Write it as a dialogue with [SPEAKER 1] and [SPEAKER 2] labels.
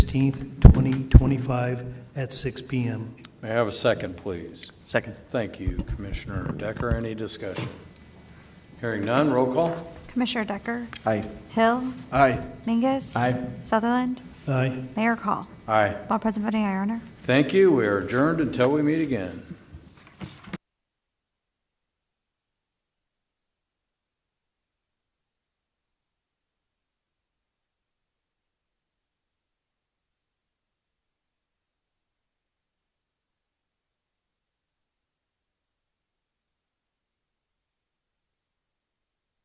[SPEAKER 1] 15th, 2025, at 6 PM.
[SPEAKER 2] May I have a second, please?
[SPEAKER 3] Second.
[SPEAKER 2] Thank you, Commissioner Decker. Any discussion? Hearing none, roll call.
[SPEAKER 4] Commissioner Decker?
[SPEAKER 3] Aye.
[SPEAKER 4] Hill?
[SPEAKER 3] Aye.
[SPEAKER 4] Mingus?
[SPEAKER 3] Aye.
[SPEAKER 4] Sutherland?
[SPEAKER 1] Aye.
[SPEAKER 4] Mayor Call?
[SPEAKER 2] Aye.
[SPEAKER 4] All present voting aye, Your Honor.
[SPEAKER 2] Thank you. We are adjourned until we meet again.